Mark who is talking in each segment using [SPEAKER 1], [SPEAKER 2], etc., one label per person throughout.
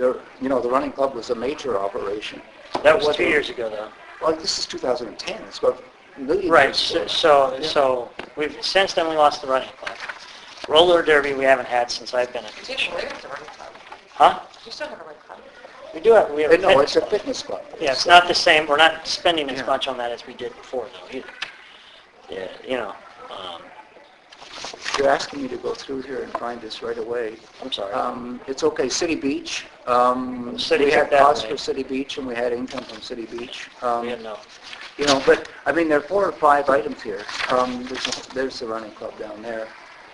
[SPEAKER 1] There, you know, the running club was a major operation.
[SPEAKER 2] That was two years ago, though.
[SPEAKER 1] Well, this is 2010, it's got a million years.
[SPEAKER 2] Right, so,
[SPEAKER 1] ago.
[SPEAKER 2] so-
[SPEAKER 1] Yeah.
[SPEAKER 2] so, we've, since then, we lost the running club. Roller derby, we haven't had since I've been in
[SPEAKER 3] You
[SPEAKER 2] commission.
[SPEAKER 3] didn't live at the run club.
[SPEAKER 2] Huh?
[SPEAKER 3] You still have a run club.
[SPEAKER 2] We do have, we have a
[SPEAKER 1] Uh, No, it's
[SPEAKER 2] fitness
[SPEAKER 1] a
[SPEAKER 2] club.
[SPEAKER 1] fitness club.
[SPEAKER 2] Yeah, it's not the same, we're not spending as
[SPEAKER 1] Yeah.
[SPEAKER 2] much on that as we did before, though, either. Yeah, you know, um,
[SPEAKER 1] You're asking me to go through here and find this right away.
[SPEAKER 2] I'm sorry.
[SPEAKER 1] Um, It's okay, City Beach. um,
[SPEAKER 2] City
[SPEAKER 1] We
[SPEAKER 2] took
[SPEAKER 1] had
[SPEAKER 2] that
[SPEAKER 1] costs
[SPEAKER 2] away.
[SPEAKER 1] for City Beach and we had income from City Beach. Um,
[SPEAKER 2] we had no,
[SPEAKER 1] You know, but, I mean, there are four or five items here. Um, there's, there's the running club down there.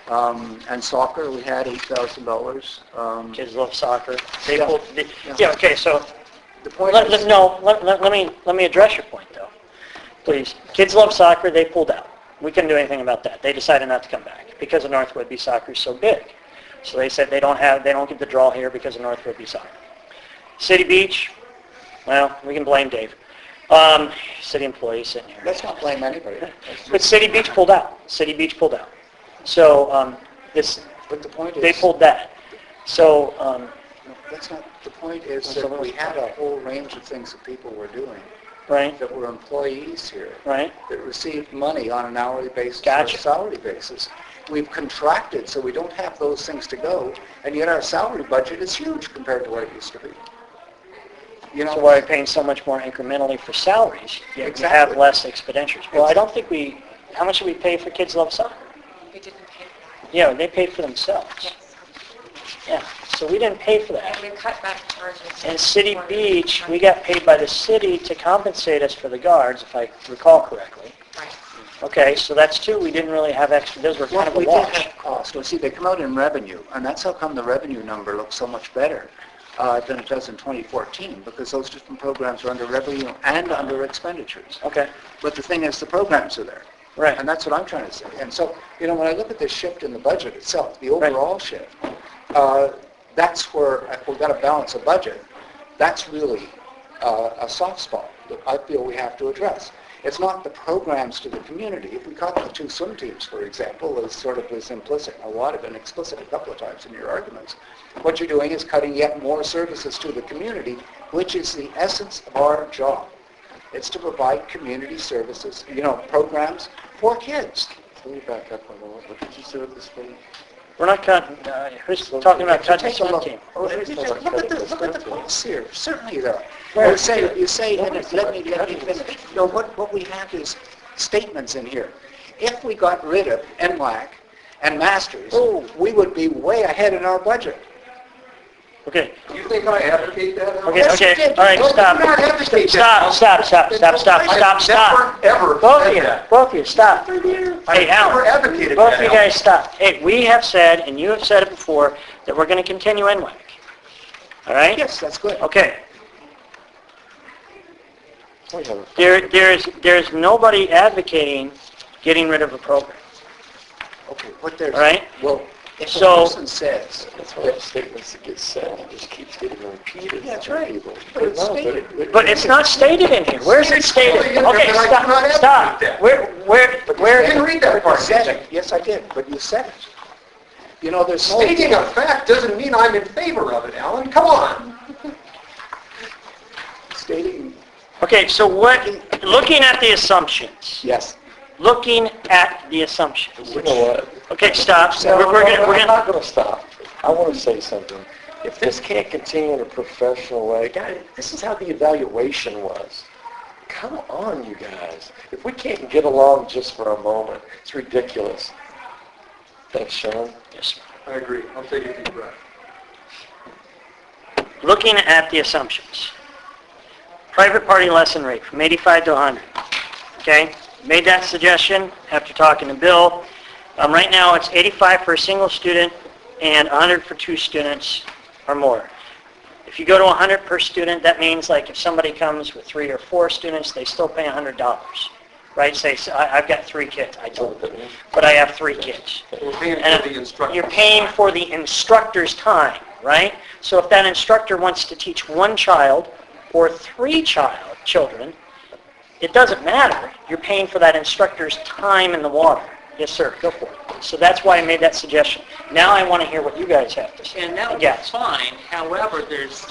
[SPEAKER 1] Um, and soccer, we had eight thousand dollars. Um,
[SPEAKER 2] kids love soccer. They
[SPEAKER 1] Yeah.
[SPEAKER 2] pulled, they-
[SPEAKER 1] Yeah.
[SPEAKER 2] yeah, okay, so,
[SPEAKER 1] the point
[SPEAKER 2] let, let,
[SPEAKER 1] is,
[SPEAKER 2] no, let, let let me, let me address your point, though. Please, kids love soccer, they pulled out. We couldn't do anything about that. They decided not to come back because the North Whitby soccer is so big. So they said they don't have, they don't get the draw here because of North Whitby soccer. City Beach, well, we can blame Dave. Um, city employees sitting here.
[SPEAKER 1] let's not blame anybody. That's-
[SPEAKER 2] But City Beach pulled out. City Beach pulled out. So um, this,
[SPEAKER 1] But the point is.
[SPEAKER 2] they pulled that. So um,
[SPEAKER 1] no, That's not, the point is
[SPEAKER 2] That's
[SPEAKER 1] that
[SPEAKER 2] someone
[SPEAKER 1] we
[SPEAKER 2] else's
[SPEAKER 1] had a
[SPEAKER 2] contract.
[SPEAKER 1] whole range of things that people were doing,
[SPEAKER 2] right,
[SPEAKER 1] that were employees here.
[SPEAKER 2] right.
[SPEAKER 1] that receive money on an hourly basis or a
[SPEAKER 2] Gotcha.
[SPEAKER 1] salary basis. We've contracted, so we don't have those things to go, and yet our salary budget is huge compared to what it used to be. You
[SPEAKER 2] So
[SPEAKER 1] know,
[SPEAKER 2] why are we paying so much more incrementally for salaries? Yet we have
[SPEAKER 1] Exactly.
[SPEAKER 2] less expenditures. Well, I don't think we. How much do we pay for Kids Love Soccer?
[SPEAKER 3] You didn't pay for that.
[SPEAKER 2] Yeah, they paid for themselves.
[SPEAKER 3] Yes.
[SPEAKER 2] Yeah. So we didn't pay for that.
[SPEAKER 3] And we cut back charges.
[SPEAKER 2] And City
[SPEAKER 3] for-
[SPEAKER 2] Beach, we got paid by the city to compensate us for the guards, if I recall correctly.
[SPEAKER 3] Right.
[SPEAKER 2] Okay, so that's two. We didn't really have extra. Those were kind
[SPEAKER 1] well,
[SPEAKER 2] of a
[SPEAKER 1] we did
[SPEAKER 2] wash.
[SPEAKER 1] have costs. Well, see, they come out in revenue, and that's how come the revenue number looks so much better uh, than it does in 2014, because those different programs are under revenue and under expenditures.
[SPEAKER 2] Okay.
[SPEAKER 1] But the thing is, the programs are there.
[SPEAKER 2] Right.
[SPEAKER 1] And that's what I'm trying to say. And so, you know, when I look at the shift in the budget itself, the
[SPEAKER 2] Right.
[SPEAKER 1] overall shift, uh, that's where I- we've got to balance a budget. That's really uh, a soft spot that I feel we have to address. It's not the programs to the community. If we caught the two swim teams, for example, as sort of was implicit, a lot of it explicit a couple of times in your arguments, what you're doing is cutting yet more services to the community, which is the essence of our job. It's to provide community services, you know, programs for kids.
[SPEAKER 4] Let me back up one moment. What did you say with this thing?
[SPEAKER 2] We're not cutting, uh, who's talking about cutting
[SPEAKER 1] Take a
[SPEAKER 2] swim
[SPEAKER 1] look.
[SPEAKER 2] team?
[SPEAKER 1] Oh, you just Look at the, look at the costs here, certainly there. are.
[SPEAKER 2] Where?
[SPEAKER 1] You say, you say, and it- let me, let me finish. You know, what, what we have is statements in here. If we got rid of NWAC and Masters, we would be way ahead in our budget.
[SPEAKER 2] Okay,
[SPEAKER 4] You think I advocate that? Al?
[SPEAKER 2] okay,
[SPEAKER 1] Yes, you
[SPEAKER 2] okay,
[SPEAKER 1] did.
[SPEAKER 2] all right,
[SPEAKER 1] No,
[SPEAKER 2] stop.
[SPEAKER 1] you're not advocating.
[SPEAKER 2] Stop, stop, stop, stop, stop, stop, stop.
[SPEAKER 4] I've never
[SPEAKER 2] Both
[SPEAKER 4] said
[SPEAKER 2] of you,
[SPEAKER 4] that.
[SPEAKER 2] both of you, stop. Hey,
[SPEAKER 4] I've never
[SPEAKER 2] Alan,
[SPEAKER 4] advocated
[SPEAKER 2] both of you
[SPEAKER 4] that, Al.
[SPEAKER 2] guys stop. Hey, we have said, and you have said it before, that we're gonna continue NWAC. All right?
[SPEAKER 1] Yes, that's good.
[SPEAKER 2] Okay,
[SPEAKER 4] We have a-
[SPEAKER 2] there, there is, there is nobody advocating getting rid of a program.
[SPEAKER 1] Okay, what there's.
[SPEAKER 2] All right.
[SPEAKER 1] Well, if a
[SPEAKER 2] So-
[SPEAKER 1] person says,
[SPEAKER 4] That's why the statements that get said, it just keeps getting repeated.
[SPEAKER 1] Yeah, that's
[SPEAKER 4] by
[SPEAKER 1] right.
[SPEAKER 4] people.
[SPEAKER 1] But it's
[SPEAKER 4] No,
[SPEAKER 1] stated.
[SPEAKER 4] it- it-
[SPEAKER 2] But it's not stated in here. Where is it stated? Okay, stop, stop. Where, where,
[SPEAKER 1] Where,
[SPEAKER 2] where?
[SPEAKER 1] didn't read that
[SPEAKER 4] part,
[SPEAKER 1] part, said
[SPEAKER 4] did
[SPEAKER 1] it. Yes, I did, but you said it. You know, there's no...
[SPEAKER 4] Stating a fact doesn't mean I'm in favor of it, Alan. Come on.
[SPEAKER 1] Stating,
[SPEAKER 2] Okay, so what, looking at the assumptions,
[SPEAKER 1] yes.
[SPEAKER 2] looking at the assumptions.
[SPEAKER 4] You know what?
[SPEAKER 2] Okay, stop.
[SPEAKER 4] No,
[SPEAKER 2] We're, we're
[SPEAKER 4] no,
[SPEAKER 2] gonna,
[SPEAKER 4] no,
[SPEAKER 2] we're
[SPEAKER 4] I'm
[SPEAKER 2] gonna,
[SPEAKER 4] not going to stop. I want to say something. If this can't continue in a professional way, guys, this is how the evaluation was. Come on, you guys. If we can't get along just for a moment, it's ridiculous. Thanks, Sean.
[SPEAKER 2] yes.
[SPEAKER 4] I agree. I'll take a deep breath.
[SPEAKER 2] looking at the assumptions. Private party lesson rate from 85 to 100. Okay? Made that suggestion after talking to Bill. Um, right now, it's 85 for a single student and 100 for two students or more. If you go to 100 per student, that means like if somebody comes with three or four students, they still pay $100, right? Say, so I- I've got three kids. I don't, but I have three kids.
[SPEAKER 4] We're paying
[SPEAKER 2] And
[SPEAKER 4] for the instructor.
[SPEAKER 2] You're paying for the instructor's time, right? So if that instructor wants to teach one child or three child, children, it doesn't matter. You're paying for that instructor's time in the water. Yes, sir, go for it. So that's why I made that suggestion. Now I want to hear what you guys have to say.
[SPEAKER 5] And that would be
[SPEAKER 2] Yes.
[SPEAKER 5] fine, however, there's